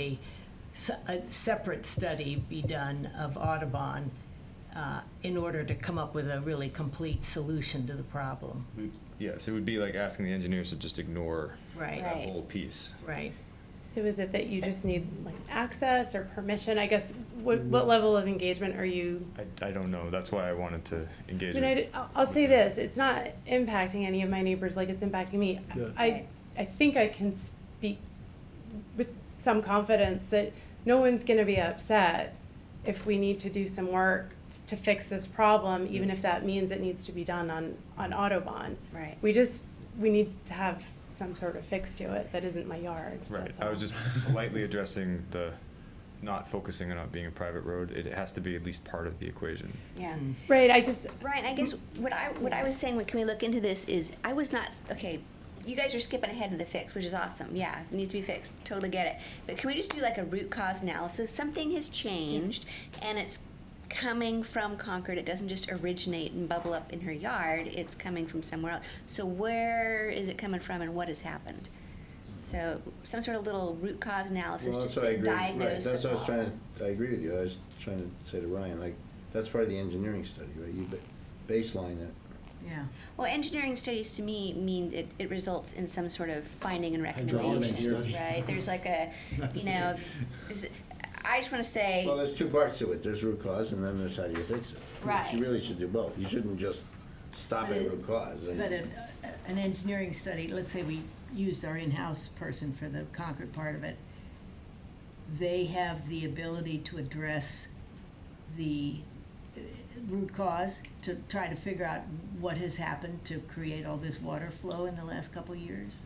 a, s- a separate study be done of Audubon uh, in order to come up with a really complete solution to the problem, Yes, it would be like asking the engineers to just ignore that right? Right. whole piece. Right. So is it that you just need like access or permission? I guess, what, what Mm-hmm. level of engagement are you? I, I don't know, that's why I wanted to I engage mean, with. I, will I'll say this, it's not impacting any of my neighbors like it's impacting me. Yeah. I, I think I can speak with some confidence that no one's gonna be upset if we need to do some work to fix this problem, even if that means it needs to be done on, on Autobahn. Right. We just, we need to have some sort of fix to it that isn't my yard. Right, that's I all. was just politely addressing the, not focusing on it being a private road, it has to be at least part of the equation. Yeah. Hmm. Right, I just, Brian, I guess what I, what I was saying, what, can we look into this is, I was not, okay, you guys are skipping ahead of the fix, which is awesome, yeah, it needs to be fixed, totally get it. But can we just do like a root cause analysis? Something has changed, and it's coming from Concord, it doesn't just originate and bubble up in her yard, it's coming from somewhere else. So where is it coming from and what has happened? So, some sort of little root cause analysis, Well, just that's what I to agree, right, diagnose the that's what I was trying problem. to, I agree with you, I was trying to say to Ryan, like, that's part of the engineering study, right? You ba- baseline it. Yeah. Well, engineering studies to me mean it, it results in some sort of finding and Hydraulic recommendation, study. right? There's like a, you know, is, I just wanna say, Well, there's two parts to it, there's root cause and then there's how do you fix it. Right. You really should do both, you shouldn't just stop But at it- root cause. I- But an, an engineering study, let's say we used our in-house person for the Concord part of it, they have the ability to address the uh, root cause, to try to figure out what has happened to create all this water flow in the last couple of years?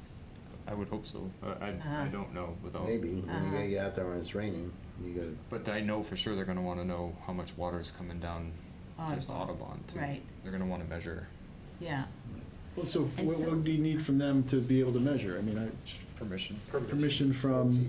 I would hope so, I- I, I Uh-huh. don't know without. Maybe, when Uh-huh. you gotta get out there when it's raining, you gotta, But I know for sure they're gonna wanna know how much water is coming down just Audubon. Audubon too. Right. They're gonna wanna measure Yeah, Well, so f- And what, so- what do you need from them to be able to measure? I mean, I, permission. permission from,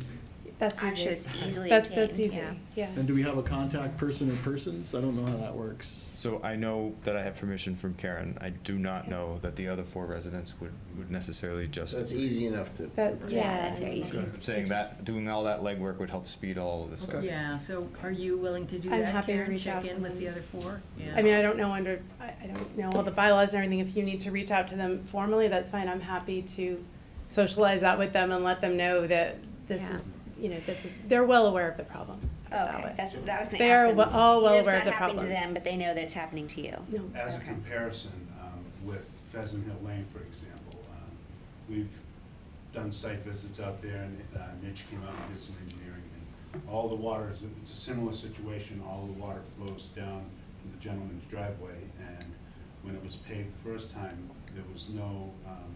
that's easy. I'm sure it's easily That's, that's obtained, easy, yeah. yeah. and do we have a contact person or persons? I don't know how that works. So I know that I have permission from Karen, I do not know that the other four residents would, would necessarily just. that's agree. easy enough to. That, yeah. Yeah, that's very easy. Okay. I'm saying that, doing all that legwork would help speed all of this up. Okay. yeah, so are you willing to do I'm that, happy to Karen, reach out check to in with them. the other four? I mean, I don't know under, I, I don't know all the bylaws and everything. If you need to reach out to them formally, that's fine. I'm happy to socialize that with them and let them know that this Yeah. Oh, is, you know, this is, they're well aware of the problem. Put it that Okay, way. that's, that was gonna ask them. They are well- all well It's aware of not the happening to problem. them, but they know that it's happening to you. No. As a Okay. comparison, um, with Pheasant Hill Lane, for example, um, we've done site visits out there, and uh, Mitch came out and did some engineering, and all the water is, it's a similar situation, all the water flows down from the gentleman's driveway, and when it was paved the first time, there was no um,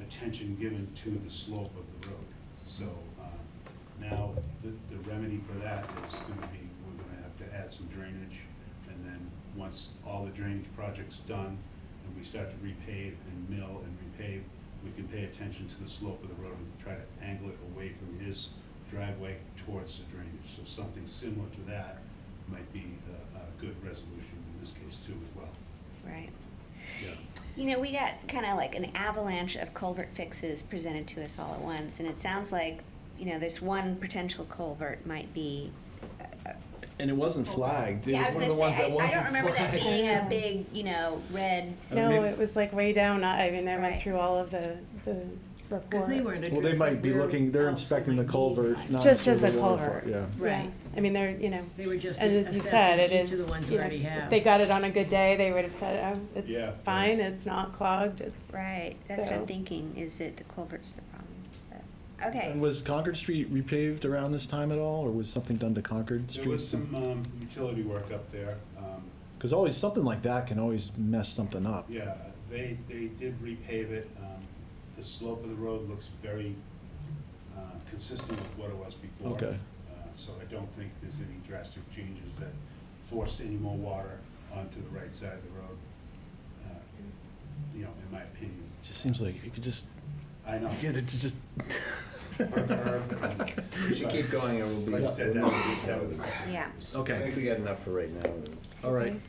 attention given to the slope of the road. So um, now, the the remedy for that is going to be, we're going to have to add some drainage, and then, once all the drainage project's done, and we start to repave and mill and repave, we can pay attention to the slope of the road and try to angle it away from his driveway towards the drainage. So something similar to that might be a- a good resolution in this case too as well. Right. Yeah. You know, we got kind of like an avalanche of culvert fixes presented to us all at once, and it sounds like, you know, this one potential culvert might be And it wasn't flagged. It Yeah, I was was one gonna of the ones say, that I, I wasn't don't remember that flagged. being a big, you know, red. I mean, No, they- it was like way down. I I mean, I went Right. through all of the, the report. Because they weren't Well, they addressing might be where looking, they're else inspecting the might be. Um, culvert, not Just as necessarily the water culvert. flow. Yeah. Yeah. Right. I mean, they're, you know. They were just And as you said, it assessing is. each of the ones we you know, already if have. They got it on a good day, they would have said, oh, Yeah. it's fine, it's not clogged, it's. Right, that's what I'm So- thinking, is that the culvert's the problem. but- And Okay, was Concord Street repaved around this time at all, or was something done to Concord Street? There was some um, utility work up there. um, Because always, something like that can always mess something up. Yeah, they, they did repave it. Um, The slope of the road looks very uh, consistent with what it was before. Okay. Uh, So I don't think there's any drastic changes that forced any more water onto the right side of the road, uh, you know, in my opinion. Just seems like you could just I know. get it to just. You should keep going, it will be. Like I said, that would be, that would be. yeah, I think Okay, we got enough for right now. all right.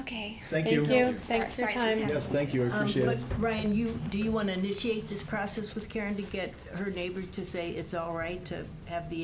okay. Thank you. Thank you, thanks for your Sorry, this is time. happening. Yes, thank you, I Um, appreciate but it. Ryan, you, do you want to initiate this process with Karen to get her neighbor to say it's all right to have the